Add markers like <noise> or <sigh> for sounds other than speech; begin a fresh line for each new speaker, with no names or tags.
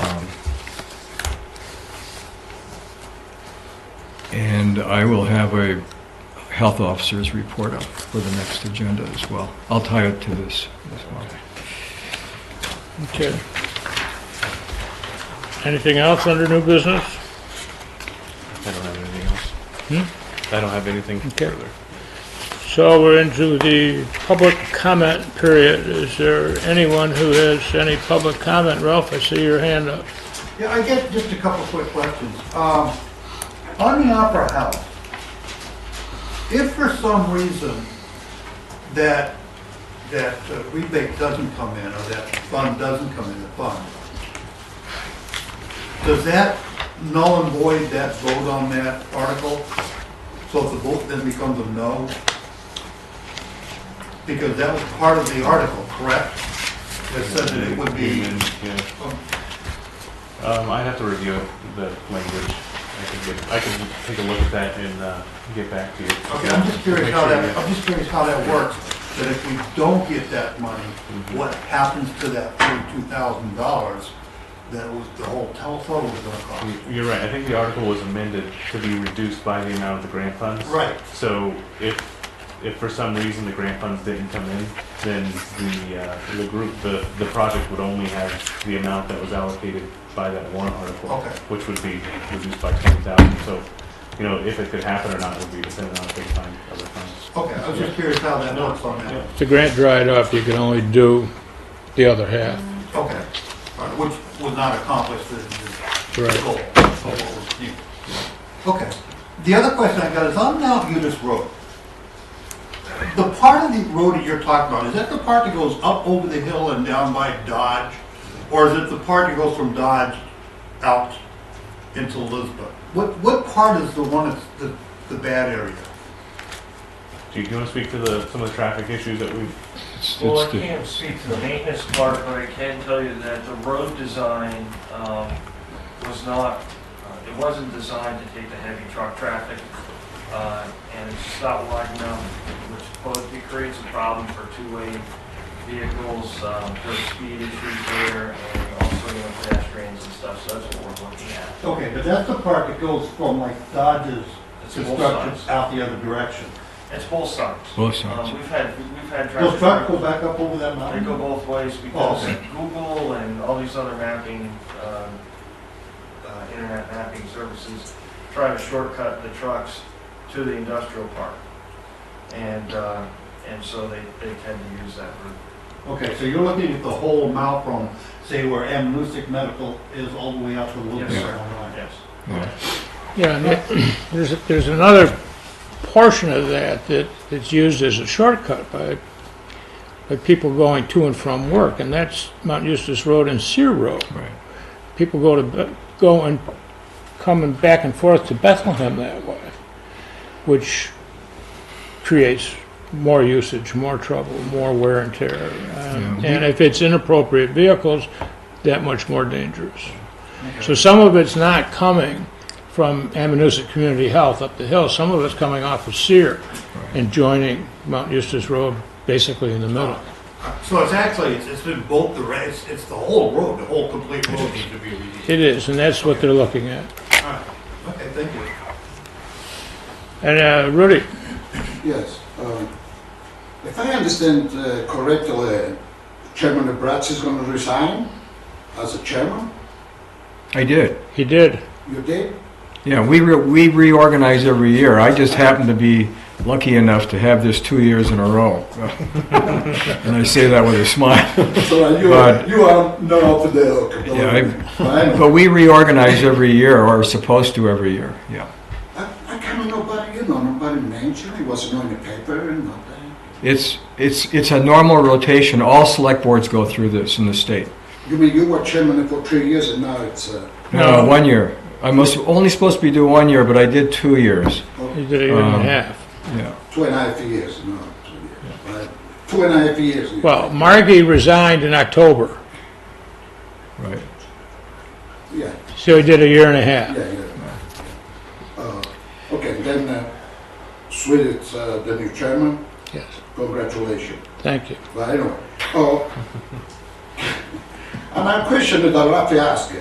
Um, And I will have a health officer's report up for the next agenda as well. I'll tie it to this as well.
Okay. Anything else under new business?
I don't have anything else. I don't have anything
Okay.
further.
So we're into the public comment period. Is there anyone who has any public comment? Ralph, I see your hand up.
Yeah, I get just a couple quick questions. Um, On the Opera House, if for some reason that, that uh, rebate doesn't come in, or that fund doesn't come in, the fund, does that null and void that vote on that article? So if the vote then becomes a no? Because that was part of the article, correct? That said that it would be,
Yeah.
um,
Um, I'd have to review it, the language. I could get, I could take a look at that and, uh, get back to you.
Okay, I'm just curious
Make
how
sure
that,
that-
I'm just curious how that works, that if we don't get that money,
Mm-hmm.
what happens to that forty-two thousand dollars that was, the whole telephone was gonna cost?
You're right, I think the article was amended to be reduced by the amount of the grant funds.
Right,
So if, if for some reason the grant funds didn't come in, then the, uh, the group, the, the project would only have the amount that was allocated by that warrant article.
Okay.
Which would be reduced by twenty thousand, so, you know, if it could happen or not would be dependent on if they find other funds.
okay, I was just curious how that works on
Yeah.
that.
If the grant dried up, you can only do the other half.
Okay, All right, which was not accomplished, the, the
Right.
goal of what was needed. Okay, the other question I got is on Mount Utis Road. The part of the road that you're talking about, is that the part that goes up over the hill and down by Dodge? Or is it the part that goes from Dodge out into Lisbon? What, what part is the one that's the, the bad area?
Do you, do you wanna speak to the, some of the traffic issues that we've
It's-
Well, I
it's the-
can't speak to the maintenance part, but I can tell you that the road design um, was not, uh, it wasn't designed to take the heavy truck traffic, uh, and it's just not wide enough, which both creates a problem for two-way vehicles, um, there's speed issues there, and also, you know, pedestrians and stuff, so that's what we're looking at.
Okay, but that's the part that goes from like Dodge's
It's both
construction
sides.
out the other direction.
It's both sides.
Both sides.
Um, We've had, we've had traffic.
Does truck go back up over that
They
mountain?
go both ways because
Oh, okay.
Google and all these other mapping, um, uh, internet mapping services try to shortcut the trucks to the industrial park. And, uh, and so they, they tend to use that route.
Okay, so you're looking at the whole mount from, say, where M. Lucic Medical is all the way out to Little
Yes,
Bit
sir.
Online.
Yes.
yeah.
Yeah, and it- <clears throat> there's, there's another portion of that that, that's used as a shortcut by, by people going to and from work, and that's Mount Eustace Road and Sear Road.
Right.
People go to, Be- go and coming back and forth to Bethlehem that way, which creates more usage, more trouble, more wear and tear. And-
Yeah.
And if it's inappropriate vehicles, that much more dangerous. So some of it's not coming from Amanuset Community Health up the hill, some of it's coming off of Sear and joining Mount Eustace Road basically in the middle.
So it's actually, it's, it's been both the, ra- it's, it's the whole road, the whole complete road needs to be reviewed.
It is, and that's what they're looking at.
Okay, thank you.
And uh, Rudy,
Yes. um, If I understand uh, correctly, Chairman Bratz is going to resign as a chairman?
I did.
he did.
You did?
Yeah, we, re- we reorganize every year. I just happened to be lucky enough to have this two years in a row. <laughs> And I say that with a smile.
So you
But-
are, you are not up there. okay,
Yeah, I- <laughs>
fine.
But we reorganize every year, or are supposed to every year, yeah.
I I can't, nobody, you know, nobody mentioned, it wasn't on the paper and nothing.
It's, it's, it's a normal rotation. All select boards go through this in the state.
You mean you were chairman for three years and now it's, uh,
No,
No.
one year. I was only supposed to be doing one year, but I did two years.
He did a year and a
Um,
half.
Yeah,
two and a half years, no, two years, right? Two and a half years.
Well, Margie resigned in October,
right.
Yeah.
so he did a year and a half.
Yeah, yeah. Uh, Okay, then, uh, Sweet, it's uh, the new chairman,
Yes,
congratulations.
thank you.
<laughs> But anyway, oh, and I question that Rafi asked,